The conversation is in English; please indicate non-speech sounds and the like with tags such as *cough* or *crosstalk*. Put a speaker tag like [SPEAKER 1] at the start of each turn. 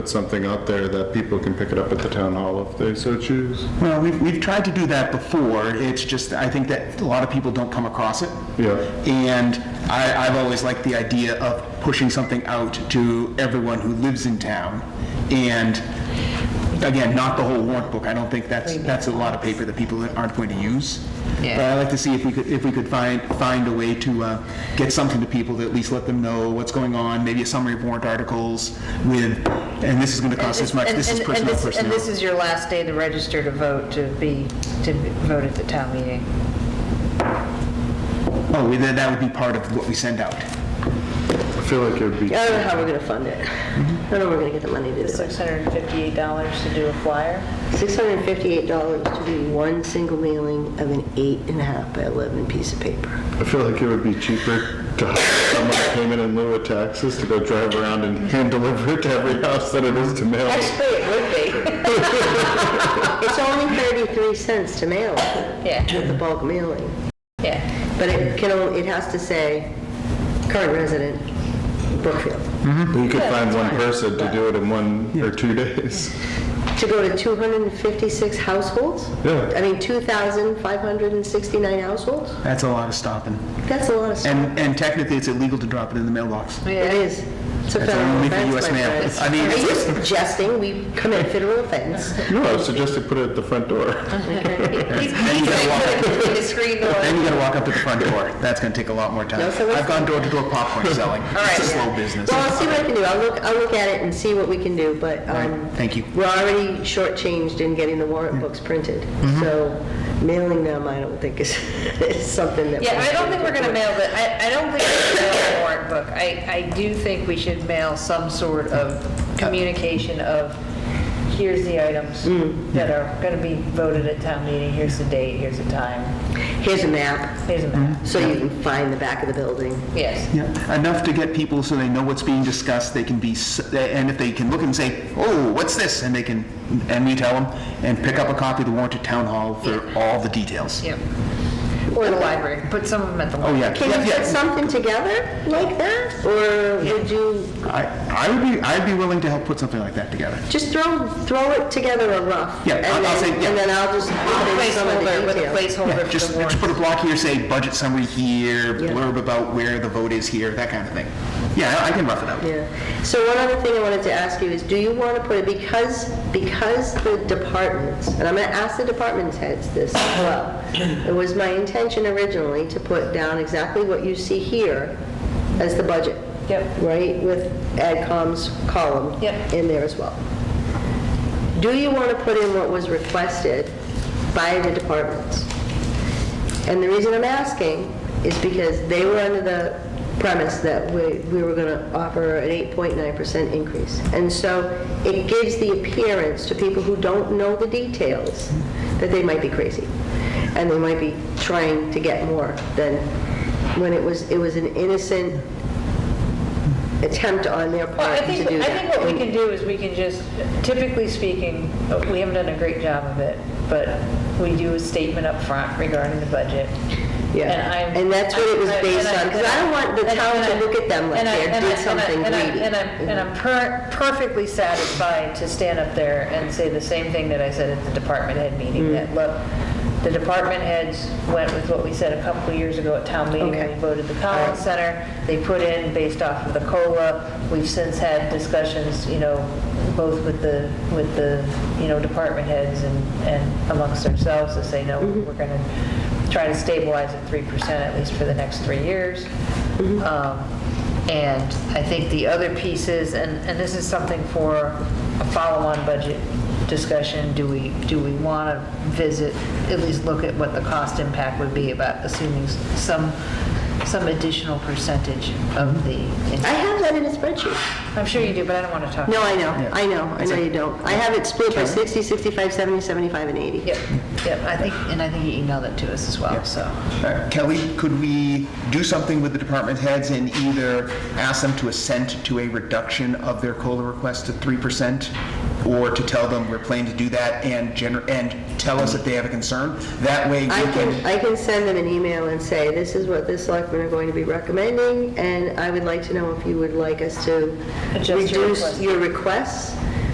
[SPEAKER 1] put something out there that people can pick it up at the town hall if they so choose.
[SPEAKER 2] Well, we've, we've tried to do that before, it's just, I think that a lot of people don't come across it.
[SPEAKER 1] Yeah.
[SPEAKER 2] And I, I've always liked the idea of pushing something out to everyone who lives in town. And again, not the whole warrant book, I don't think that's, that's a lot of paper that people aren't going to use.
[SPEAKER 3] Yeah.
[SPEAKER 2] But I like to see if we could, if we could find, find a way to uh, get something to people to at least let them know what's going on, maybe a summary of warrant articles with, and this is gonna cost this much,
[SPEAKER 3] And-
[SPEAKER 2] this is
[SPEAKER 3] and- and
[SPEAKER 2] personnel,
[SPEAKER 3] this-
[SPEAKER 2] personnel.
[SPEAKER 3] And this is your last day to register to vote, to be, to vote at the town meeting.
[SPEAKER 2] Oh, well, then that would be part of what we send out.
[SPEAKER 1] I feel like it would be,
[SPEAKER 4] I don't know how we're gonna fund it. I don't know where we're gonna get the money to do it.
[SPEAKER 3] $658 to do a flyer?
[SPEAKER 4] $658 to do one single mailing of an eight and a half by 11 piece of paper.
[SPEAKER 1] I feel like it would be cheaper to hire someone to payment in lieu of taxes to go drive around and hand deliver it to every house than it is to mail. it.
[SPEAKER 4] Actually, it would be. *laughs* It's only 33 cents to mail it,
[SPEAKER 3] Yeah,
[SPEAKER 4] with the bulk mailing.
[SPEAKER 2] *laughs*
[SPEAKER 3] yeah.
[SPEAKER 4] But it can, only- it has to say, current resident, Brookfield.
[SPEAKER 1] But You could find one person to do it in one or two days.
[SPEAKER 4] To go to 256 households?
[SPEAKER 1] Yeah.
[SPEAKER 4] I mean, 2,569 households?
[SPEAKER 2] That's a lot of stopping.
[SPEAKER 4] That's a lot of stuff.
[SPEAKER 2] And, and technically, it's illegal to drop it in the mailbox.
[SPEAKER 4] Oh, It
[SPEAKER 3] Yeah.
[SPEAKER 4] is. It's a
[SPEAKER 2] That's
[SPEAKER 4] federal
[SPEAKER 2] only for
[SPEAKER 4] offense,
[SPEAKER 2] US
[SPEAKER 4] my
[SPEAKER 2] mail.
[SPEAKER 4] friends.
[SPEAKER 2] I mean,
[SPEAKER 4] Are you
[SPEAKER 2] it's-
[SPEAKER 4] suggesting we commit federal offense?
[SPEAKER 1] No, I suggested put it at the front door.
[SPEAKER 3] He's
[SPEAKER 2] you
[SPEAKER 3] he's
[SPEAKER 2] gotta walk
[SPEAKER 3] like, put it in the screen door.
[SPEAKER 2] Then you gotta walk up to the front door. That's gonna take a lot more time.
[SPEAKER 4] No, so let's-
[SPEAKER 2] I've gone door to door popcorn selling.
[SPEAKER 3] right,
[SPEAKER 2] It's a
[SPEAKER 3] yeah.
[SPEAKER 2] slow business.
[SPEAKER 4] Well, I'll see what I can do. I'll look, I'll look at it and see what we can do, but, um...
[SPEAKER 2] Right, thank you. Mm.
[SPEAKER 4] We're already shortchanged in getting the warrant books printed,
[SPEAKER 2] Mm-hmm.
[SPEAKER 4] so mailing them, I don't think is, *laughs* is something that...
[SPEAKER 3] Yeah,
[SPEAKER 4] we
[SPEAKER 3] I don't
[SPEAKER 4] should
[SPEAKER 3] think we're gonna
[SPEAKER 4] do.
[SPEAKER 3] mail the, I, I don't think we should mail the warrant book. I, I do think we should mail some sort of communication of, here's the items that are gonna be voted at town meeting, here's the date, here's the time,
[SPEAKER 4] Here's a map,
[SPEAKER 3] here's a map.
[SPEAKER 4] so you can find the back of the building.
[SPEAKER 3] Yes.
[SPEAKER 2] Yeah, enough to get people so they know what's being discussed, they can be, s- and if they can look and say, oh, what's this? And they can, and we tell them, and pick up a copy of the warrant at town hall for all the details.
[SPEAKER 3] Yep.
[SPEAKER 4] Or
[SPEAKER 3] Or the
[SPEAKER 4] the-
[SPEAKER 3] library, put some of them at the
[SPEAKER 2] Oh,
[SPEAKER 3] library.
[SPEAKER 2] yeah.
[SPEAKER 4] Can
[SPEAKER 2] Yeah,
[SPEAKER 4] you
[SPEAKER 2] yeah.
[SPEAKER 4] put something together like that? Or would you
[SPEAKER 2] I, I would be, I'd be willing to help put something like that together.
[SPEAKER 4] just throw, throw it together a rough?
[SPEAKER 2] Yeah,
[SPEAKER 4] and
[SPEAKER 2] I'll- I'll
[SPEAKER 4] then-
[SPEAKER 2] say- yeah.
[SPEAKER 4] And then I'll just put in some of
[SPEAKER 3] Placeholder,
[SPEAKER 4] the
[SPEAKER 3] with a
[SPEAKER 4] details.
[SPEAKER 3] placeholder for
[SPEAKER 2] Just,
[SPEAKER 3] the
[SPEAKER 2] just
[SPEAKER 3] warrant.
[SPEAKER 2] put a block here, say budget summary here,
[SPEAKER 4] Yeah.
[SPEAKER 2] blurb about where the vote is here, that kind of thing. Yeah, I I can rough it out.
[SPEAKER 4] Yeah. So one other thing I wanted to ask you is, do you want to put it, because, because the departments, and I'm going to ask the department heads this as well. It was my intention originally to put down exactly what you see here as the budget.
[SPEAKER 3] Yep.
[SPEAKER 4] Right, with AdCom's column.
[SPEAKER 3] Yep.
[SPEAKER 4] In there as well. Do you want to put in what was requested by the departments? And the reason I'm asking is because they were under the premise that we, we were gonna offer an 8.9% increase. And so it gives the appearance to people who don't know the details that they might be crazy. And they might be trying to get more than, when it was, it was an innocent attempt on their
[SPEAKER 3] Well, I
[SPEAKER 4] part to do
[SPEAKER 3] think,
[SPEAKER 4] that.
[SPEAKER 3] I think what we
[SPEAKER 4] And-
[SPEAKER 3] can do is we can just, typically speaking, we haven't done a great job of it, but we do a statement up front regarding the budget.
[SPEAKER 4] Yeah,
[SPEAKER 3] I'm-
[SPEAKER 4] and that's what it was
[SPEAKER 3] I- I-
[SPEAKER 4] based
[SPEAKER 3] and
[SPEAKER 4] on, 'cause I don't want the
[SPEAKER 3] and I-
[SPEAKER 4] town to
[SPEAKER 3] and I-
[SPEAKER 4] look at them like
[SPEAKER 3] and I-
[SPEAKER 4] they
[SPEAKER 3] and I-
[SPEAKER 4] did
[SPEAKER 3] and I-
[SPEAKER 4] something
[SPEAKER 3] and I-
[SPEAKER 4] greedy.
[SPEAKER 3] And I'm, and I'm per- perfectly satisfied to stand up there and say the same thing that I said at the department head meeting,
[SPEAKER 4] Mm.
[SPEAKER 3] that, look, the department heads went with what we said a couple of years ago at town meeting when we
[SPEAKER 4] Okay.
[SPEAKER 3] voted the Collins Center. They put in based off of the COLA. We've since had discussions, you know, both with the, with the, you know, department heads and, and amongst ourselves to say, no, we're going to try to stabilize at 3% at least for the next three years. Um, And I think the other pieces, and, and this is something for a follow-on budget discussion, do we, do we want to visit, at least look at what the cost impact would be about assuming s- some, some additional percentage of the,
[SPEAKER 4] I have that in a spreadsheet.
[SPEAKER 3] I'm sure you do, but I don't want to talk.
[SPEAKER 4] No, I know, I know, I know you don't. I have it split by 60, 65, 70, 75, and 80.
[SPEAKER 3] Yep, yep, I think, and I think you emailed it to us as well, so.
[SPEAKER 2] Uh, Kelly, could we do something with the department heads and either ask them to assent to a reduction of their COLA request to 3%? Or to tell them we're planning to do that and gener, and tell us if they have a concern? That way we
[SPEAKER 4] I can,
[SPEAKER 2] can,
[SPEAKER 4] I can send them an email and say, this is what the selectmen are going to be recommending, and I would like to know if you would like us to
[SPEAKER 3] Adjust your
[SPEAKER 4] reduce
[SPEAKER 3] request."
[SPEAKER 4] your requests